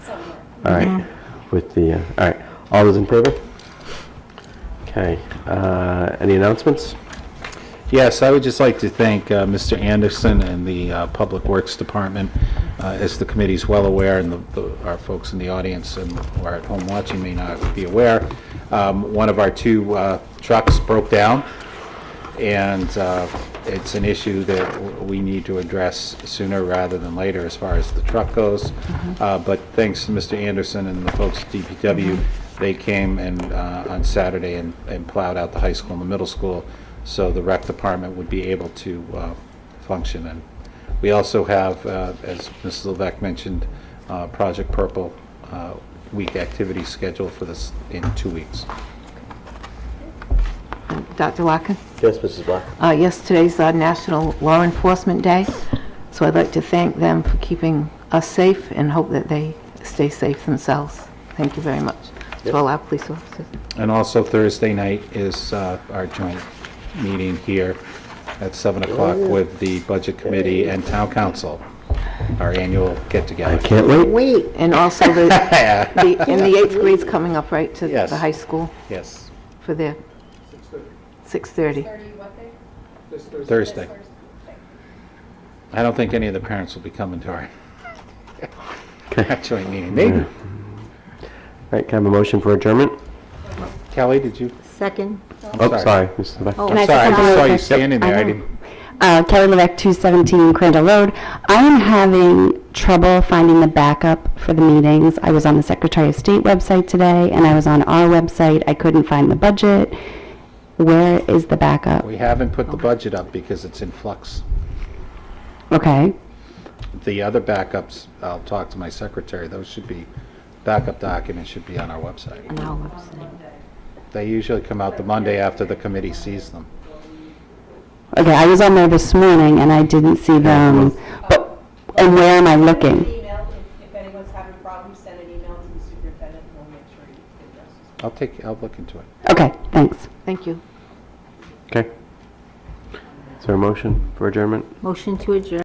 All right, with the, uh, all right, all those in favor? Okay, uh, any announcements? Yes, I would just like to thank uh, Mr. Anderson and the uh, Public Works Department. Uh, As the committee's well aware, and the- the- our folks in the audience and who are at home watching may not be aware, um, one of our two uh, trucks broke down, and uh, it's an issue that w- we need to address sooner rather than later as far as the truck goes. Uh, But thanks to Mr. Anderson and the folks at DPW, they came and, uh, on Saturday and and plowed out the high school and the middle school, so the rec department would be able to uh, function. And we also have, uh, as Mrs. Levesque mentioned, uh, Project Purple uh, Week activity scheduled for this in two weeks. Dr. Larkin? Yes, Mrs. Black. Uh, Yes, today's uh, National Law Enforcement Day, so I'd like to thank them for keeping us safe and hope that they stay safe themselves. Thank you very much to all our police officers. And also Thursday night is uh, our joint meeting here at 7 o'clock with the Budget Committee and Town Council, our annual get-together. Can't wait. Wait. And also the, the- and the eighth grade's coming up, right, to Yes. the high school Yes, for their... 6:30. Thursday. I don't think any of the parents will be coming to our joint meeting. Maybe. All right, can I have a motion for adjournment? Kelly, did you? Second. Oh, sorry, Mrs. Levesque. Can I I'm ask sorry, I a just saw follow-up you question? standing there. I know. didn't. Uh, Kelly Levesque, 217 Crandall Road. I am having trouble finding the backup for the meetings. I was on the Secretary of State website today, and I was on our website. I couldn't find the budget. Where is the backup? We haven't put the budget up because it's in flux. Okay, The other backups, I'll talk to my secretary, those should be, backup documents should be on our website. Now, website. They usually come out the Monday after the committee sees them. okay, I was on there this morning, and I didn't see them. But, and where am I looking? Email, if, if anyone's having problems, send an email to the superintendent, and we'll make sure you get addresses. I'll take, I'll look into it. Okay, thanks. Thank you. Okay. Is there a motion for adjournment? Motion to adjourn.